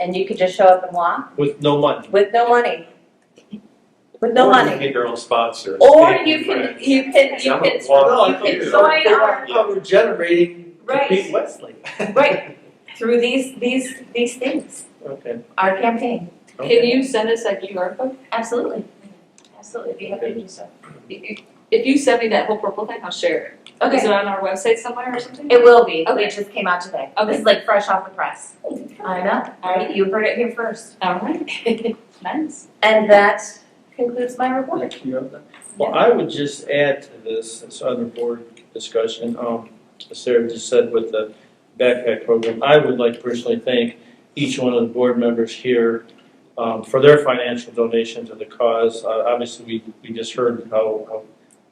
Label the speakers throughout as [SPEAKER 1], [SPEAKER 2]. [SPEAKER 1] and you could just show up and walk
[SPEAKER 2] with no money.
[SPEAKER 1] with no money. With no
[SPEAKER 2] Or you
[SPEAKER 1] money.
[SPEAKER 2] can get your own sponsor.
[SPEAKER 1] Or
[SPEAKER 2] Stay
[SPEAKER 1] you
[SPEAKER 2] in
[SPEAKER 1] can, e-
[SPEAKER 2] France.
[SPEAKER 1] you can, you
[SPEAKER 2] Some
[SPEAKER 1] can,
[SPEAKER 2] of them
[SPEAKER 1] you
[SPEAKER 2] want
[SPEAKER 1] can
[SPEAKER 2] to.
[SPEAKER 1] join our,
[SPEAKER 2] How
[SPEAKER 3] we're generating
[SPEAKER 1] right,
[SPEAKER 3] Wesley.
[SPEAKER 1] right, through these, these, these things,
[SPEAKER 3] Okay.
[SPEAKER 1] our campaign,
[SPEAKER 4] Can you send us that QR code?
[SPEAKER 1] absolutely. Absolutely, be happy to do so.
[SPEAKER 4] If you send me that whole purple thing, I'll share it. Is
[SPEAKER 1] Okay,
[SPEAKER 4] it on our website somewhere or something?
[SPEAKER 1] it will be,
[SPEAKER 4] Okay.
[SPEAKER 1] it just came out today.
[SPEAKER 4] Okay.
[SPEAKER 1] This is like fresh off the press. I know, all right, you heard it here first.
[SPEAKER 4] All right. Nice.
[SPEAKER 1] And that concludes my report.
[SPEAKER 3] Thank you. Well, I would just add to this, this other board discussion, um, as Sarah just said with the backpack program. I would like to personally thank each one of the board members here, um, for their financial donation to the cause. Uh, obviously, we, we just heard how, how,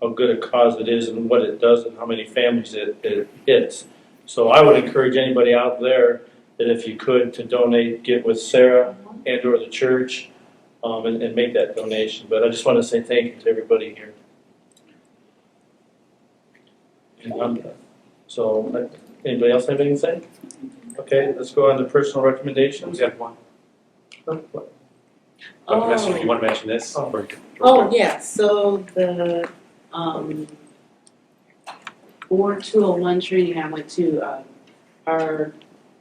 [SPEAKER 3] how good a cause it is and what it does and how many families it, it hits. So I would encourage anybody out there that if you could to donate, get with Sarah and or the church um, and, and make that donation. But I just want to say thank you to everybody here. And I'm done. So, uh, anybody else have anything to say? Okay, let's go on to personal recommendations.
[SPEAKER 2] We have one.
[SPEAKER 3] What-
[SPEAKER 2] Dr. Messer, you want to mention this?
[SPEAKER 3] Oh.
[SPEAKER 2] Or-
[SPEAKER 5] Oh, yeah, so the, um, Board two oh one training, I went to, uh, our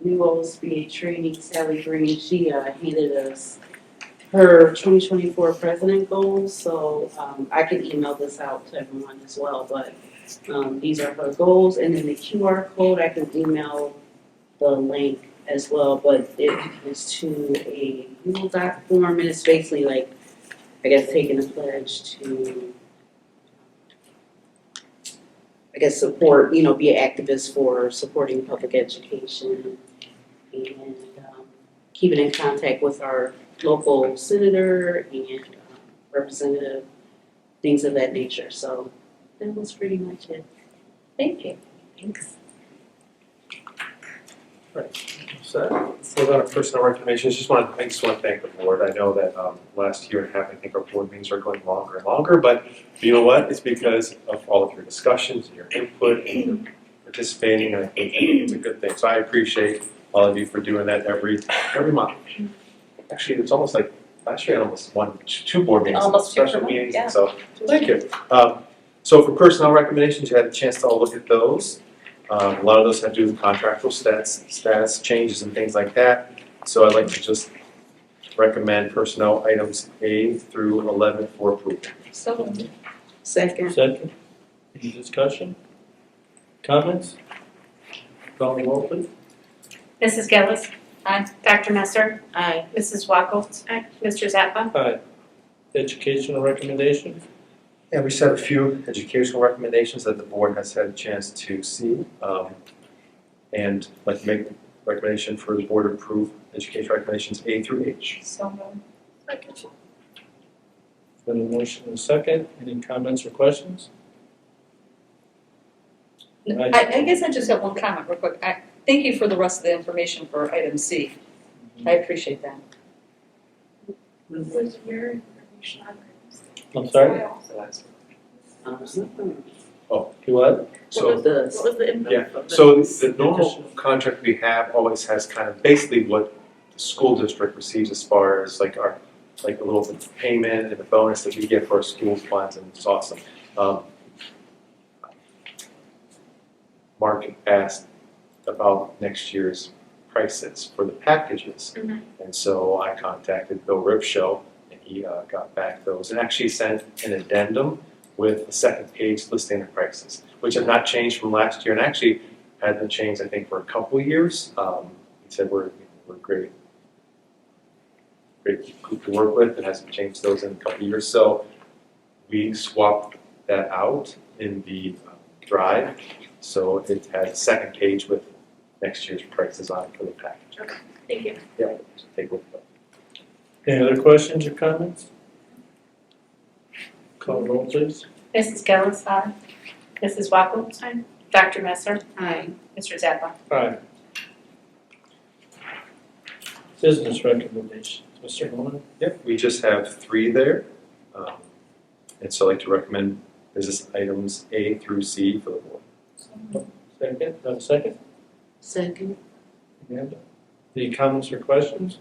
[SPEAKER 5] new OSBA training, Sally Green, she, uh, handed us her twenty twenty-four president goals, so, um, I can email this out to everyone as well, but, um, these are her goals, and then the QR code, I can email the link as well, but it is to a Google Doc form, and it's basically like I guess taking a pledge to, I guess, support, you know, be an activist for supporting public education and um, keeping in contact with our local senator and um, representative, things of that nature. So that was pretty much it.
[SPEAKER 1] Thank you. Thanks.
[SPEAKER 2] So, so on a personal recommendation, I just want to, I just want to thank the board. I know that um, last year and a half, I think our board meetings are going longer and longer, but you know what? It's because of all of your discussions, and your input, and your participating, and I think it's a good thing. So I appreciate all of you for doing that every, every month. Actually, it's almost like, last year I almost one, two board meetings,
[SPEAKER 1] Almost two per
[SPEAKER 2] special
[SPEAKER 1] month,
[SPEAKER 2] meetings,
[SPEAKER 1] yeah.
[SPEAKER 2] so, thank you. Um, So for personnel recommendations, you had a chance to all look at those. Um, a lot of those have to do with contractual stats, status changes and things like that. So I'd like to just recommend personnel items A through eleven for approval.
[SPEAKER 4] So,
[SPEAKER 5] Second.
[SPEAKER 3] Second, any discussion? Comments? Call the roll, please.
[SPEAKER 6] Mrs. Gillis.
[SPEAKER 4] Aye.
[SPEAKER 6] Dr. Messer.
[SPEAKER 5] Aye.
[SPEAKER 6] Mrs. Wackel. Mr. Zappa.
[SPEAKER 3] Aye. Educational recommendations?
[SPEAKER 2] Yeah, we just have a few educational recommendations that the board has had a chance to see. um, And I'd like to make recommendation for the board to approve education recommendations A through H.
[SPEAKER 4] so um, moved.
[SPEAKER 3] Been a motion and a second, any comments or questions? Aye.
[SPEAKER 4] I, I guess I just have one comment real quick. I, thank you for the rest of the information for item C. I appreciate that.
[SPEAKER 6] Was your information on
[SPEAKER 3] I'm sorry,
[SPEAKER 5] Um,
[SPEAKER 3] you what?
[SPEAKER 2] So
[SPEAKER 5] Does.
[SPEAKER 6] was the info?
[SPEAKER 2] Yeah, So the normal contract we have always has kind of basically what the school district receives as far as like our, like a little payment and the bonus that we get for our school funds and it's awesome. Um, Mark asked about next year's prices for the packages.
[SPEAKER 6] Mhm.
[SPEAKER 2] And so I contacted Bill Ripshow and he uh, got back those and actually sent an addendum with a second page listing the prices, which have not changed from last year and actually had not changed, I think, for a couple years. Um, he said we're, we're great, great group to work with, and hasn't changed those in a couple years. So we swapped that out in the uh, drive, so it had a second page with next year's prices on it for the package.
[SPEAKER 6] Thank you.
[SPEAKER 2] Yeah, so take a look.
[SPEAKER 3] Any other questions or comments? Call the roll, please.
[SPEAKER 6] Mrs. Gillis. Aye. Mrs. Wackel. Dr. Messer.
[SPEAKER 5] Aye.
[SPEAKER 6] Mr. Zappa.
[SPEAKER 3] Aye. Business recommendations, Mr. Holman?
[SPEAKER 2] Yep, we just have three there. Um, and so I'd like to recommend business items A through C for the board.
[SPEAKER 3] Second, uh, second?
[SPEAKER 5] Second.
[SPEAKER 3] Amanda? Any comments or questions?